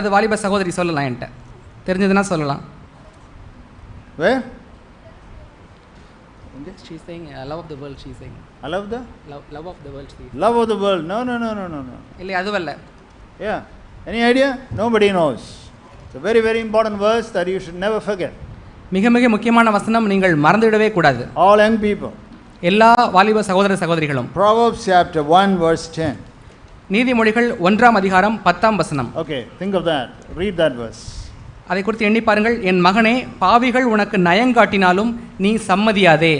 அது வாலிப சகோதரி சொல்லலாம் என்கிட்ட தெரிஞ்சதுன்னா சொல்லலாம் Where? She's saying uh, love of the world she's saying I love the love love of the world she's love of the world. No, no, no, no, no, no. இல்லை அதுவல்ல Yeah. Any idea? Nobody knows. It's a very, very important verse that you should never forget. மிக மிக முக்கியமான வசனம் நீங்கள் மறந்துவிடவே கூடாது All young people. எல்லா வாலிப சகோதர சகோதரிகளும் Proverbs chapter 1, verse 10. நீதிமொழிகள் ஒன்றாம் அதிகாரம் பத்தாம் வசனம் Okay, think of that. Read that verse. அதை குறித்து எண்ணி பாருங்கள் என் மகனே பாவிகள் உனக்கு நயங்காட்டினாலும் நீ சம்மதியாதே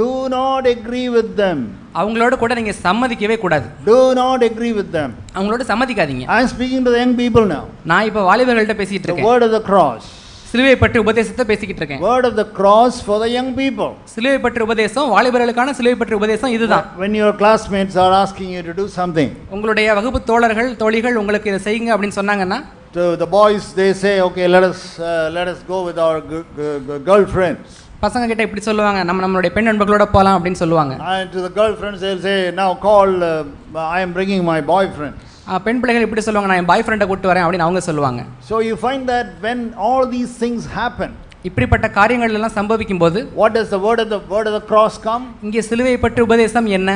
Do not agree with them. அவங்களோட கூட நீங்க சம்மதிக்கவே கூடாது Do not agree with them. அவங்களோட சம்மதிக்காதீங்க I'm speaking to the young people now. நான் இப்போ வாலிபர்கள்ட்ட பேசிட்டு The இருக்கேன் word of the cross. சிலுவை பற்றி உபதேசத்தை பேசிக்கிட்டு இருக்கேன் Word of the cross for the young people. சிலுவை பற்றி உபதேசம் வாலிபர்களுக்கான சிலுவை பற்றி உபதேசம் இதுதான் When your classmates are asking you to do something, உங்களுடைய வகுப்பு தோழர்கள் தோழிகள் உங்களுக்கு இதை செய்யுங்க அப்படின்னு சொன்னாங்கன்னா to the boys they say, okay, let us uh, let us go with our g- g- g- girlfriends. பசங்க கிட்ட இப்படி சொல்லுவாங்க நம்ம நம்மளுடைய பெண் நண்பர்களோட போகலாம் அப்படின்னு சொல்லுவாங்க And to the girlfriends, they'll say, Now call, uh, I am bringing my boyfriend. ஆஹ், பெண் பிள்ளைகள் இப்படி சொல்லுவாங்க நான் என் பாய் ஃப்ரெண்டை கூட்டு வரேன் அப்படின்னு அவங்க சொல்லுவாங்க So you find that when all these things happen, இப்படிப்பட்ட காரியங்கள் எல்லாம் சம்பவிக்கும் போது what does the word of the word of the cross come? இங்கே சிலுவை பற்றி உபதேசம் என்ன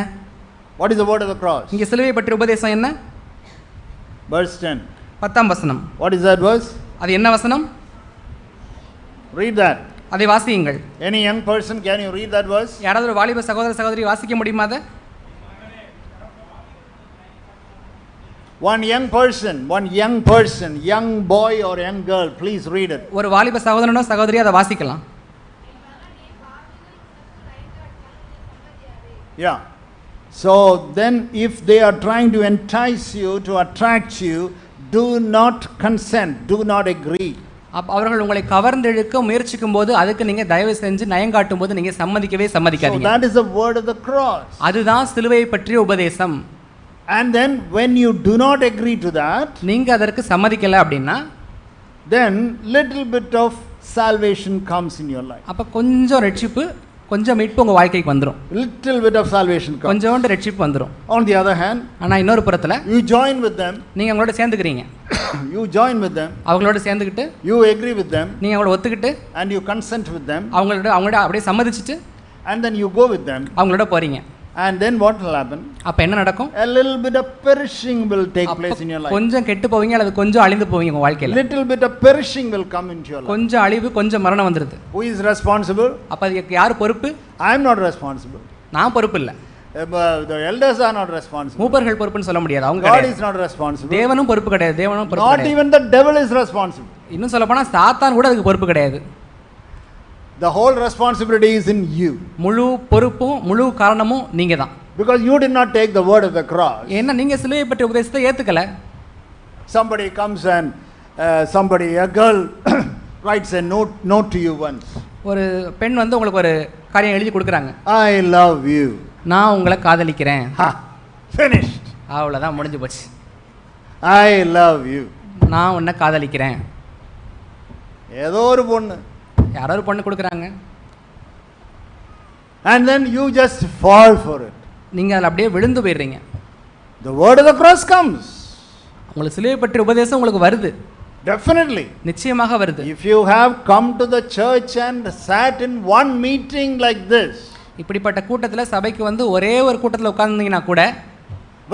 What is the word of the cross? இங்கே சிலுவை பற்றி உபதேசம் என்ன Verse 10. பத்தாம் வசனம் What is that verse? அது என்ன வசனம் Read that. அதை வாசியுங்கள் Any young person, can you read that verse? யாராவது ஒரு வாலிப சகோதர சகோதரி வாசிக்க முடியுமா அதை One young person, one young person, young boy or young girl, please read it. ஒரு வாலிப சகோதரனோ சகோதரியோ அதை வாசிக்கலாம் Yeah. So then, if they are trying to entice you, to attract you, do not consent, do not agree. அப்ப அவர்கள் உங்களை கவர்ந்தெழுக்க முயற்சிக்கும் போது அதுக்கு நீங்க தயவு செஞ்சு நயங்காட்டும் போது நீங்க சம்மதிக்கவே So சம்மதிக்காதீங்க that is the word of the cross. அதுதான் சிலுவையை பற்றிய உபதேசம் And then, when you do not agree to that, நீங்க அதற்கு சம்மதிக்கல அப்படின்னா then little bit of salvation comes in your life. அப்ப கொஞ்சம் ரட்சிப்பு கொஞ்சம் மீட்பு உங்க வாழ்க்கைக்கு வந்துடும் Little bit of salvation comes. கொஞ்சோண்டு ரட்சிப்பு வந்துடும் On the other hand, ஆனா இன்னொரு புறத்துல you join with them, நீங்க அவங்களோட சேர்ந்துக்கிறீங்க you join with them, அவங்களோட சேர்ந்துக்கிட்டு you agree with them, நீங்க அவங்கள ஒத்துக்கிட்டு and you consent with them, அவங்களோட அவங்களோட அப்படியே சம்மதிச்சுட்டு and then you go with them. அவங்களோட போறீங்க And then what will happen? அப்ப என்ன நடக்கும் A little bit of perishing will take place in your அப்ப life. கொஞ்சம் கெட்டு போவீங்க அல்லது கொஞ்சம் அழிந்து போவீங்க உங்க வாழ்க்கையில Little bit of perishing will come into your life. கொஞ்சம் அழிவு கொஞ்சம் மரணம் வந்துடுது Who is responsible? அப்ப அதுக்கு யார் பொறுப்பு I am not responsible. நான் பொறுப்பு இல்லை Uh, The elders are not responsible. மூப்பர்கள் பொறுப்புன்னு சொல்ல முடியாது அவங்க God கிடையாது. is not responsible. தேவனும் பொறுப்பு கிடையாது தேவனும் பொறுப்பு Not கிடையாது even the devil is responsible. இன்னும் சொல்ல போனா சாத்தான் கூட அதுக்கு பொறுப்பு கிடையாது The whole responsibility is in you. முழு பொறுப்பும் முழு காரணமும் நீங்க தான் Because you did not take the word of the cross. ஏன்னா நீங்க சிலுவை பற்றிய உபதேசத்தை ஏத்துக்கல Somebody comes and uh, somebody, a girl, writes a note, note to you once ஒரு பெண் வந்து உங்களுக்கு ஒரு காரியம் எழுதி கொடுக்குறாங்க I love you. நான் உங்களை காதலிக்கிறேன் Ha! Finished. அவ்வளோதான் முடிஞ்சு போச்சு I love you. நான் உன்னை காதலிக்கிறேன் ஏதோ ஒரு பொண்ணு யாரோ ஒரு பொண்ணு கொடுக்குறாங்க and then you just fall for it. நீங்கள் அதில் அப்படியே விழுந்து போயிடுறீங்க The word of the cross comes. உங்களுக்கு சிலுவை பற்றிய உபதேசம் உங்களுக்கு வருது Definitely. நிச்சயமாக வருது If you have come to the church and sat in one meeting like this, இப்படிப்பட்ட கூட்டத்தில் சபைக்கு வந்து ஒரே ஒரு கூட்டத்தில் உட்கார்ந்தீங்கன்னா கூட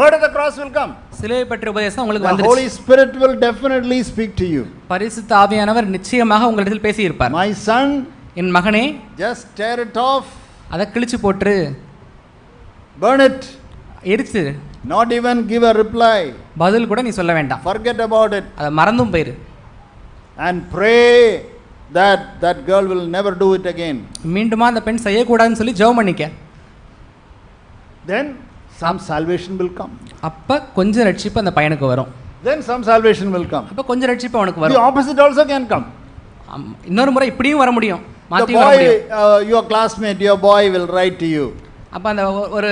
word of the cross will come. சிலுவை பற்றிய உபதேசம் உங்களுக்கு The Holy வந்துருச்சு Spirit will definitely speak to you. பரிசுத்த ஆவியானவர் நிச்சயமாக உங்களிடத்தில் பேசியிருப்பார் My son, என் மகனே just tear it off, அதை கிழிச்சு போட்டு burn it, எரிச்சு not even give a reply, பதில் கூட நீ சொல்ல வேண்டாம் forget about it, அதை மறந்தும் போயிரு and pray that that girl will never do it again. மீண்டுமா அந்த பெண் செய்யக்கூடாதுன்னு சொல்லி ஜெபம் பண்ணிக்க Then some salvation will come. அப்போ கொஞ்சம் ரட்சிப்பு அந்த பையனுக்கு வரும் Then some salvation will come. அப்போ கொஞ்சம் ரட்சிப்பு அவனுக்கு The வரும் opposite also can come. ஆமா. இன்னொரு முறை இப்படியும் வர முடியும் The மாற்றி வர முடியும் boy, uh, your classmate, your boy will write to you. அப்போ அந்த ஒ- ஒரு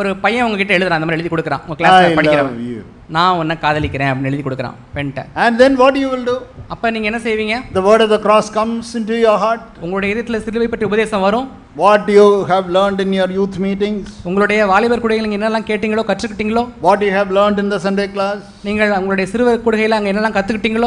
ஒரு பையன் உங்ககிட்ட எழுதுறான் அந்த மாதிரி எழுதி கொடுக்குறான் உங்க I கிளாஸ் love படிக்கிறவன் you. நான் உன்னை காதலிக்கிறேன் அப்படின்னு எழுதி கொடுக்குறான் பெண்கிட்ட And then what you will do? அப்போ நீங்கள் என்ன செய்வீங்க The word of the cross comes into your heart. உங்களுடைய இதயத்தில் சிலுவை பற்றி உபதேசம் வரும் What you have learned in your youth meetings, உங்களுடைய வாலிபர் குடையில் நீங்கள் என்னெல்லாம் கேட்டீங்களோ கற்றுக்கிட்டீங்களோ what you have learned in the Sunday class, நீங்கள் உங்களுடைய சிறுவர் குடுகையில் அங்கே என்னெல்லாம் கற்றுக்கிட்டீங்களோ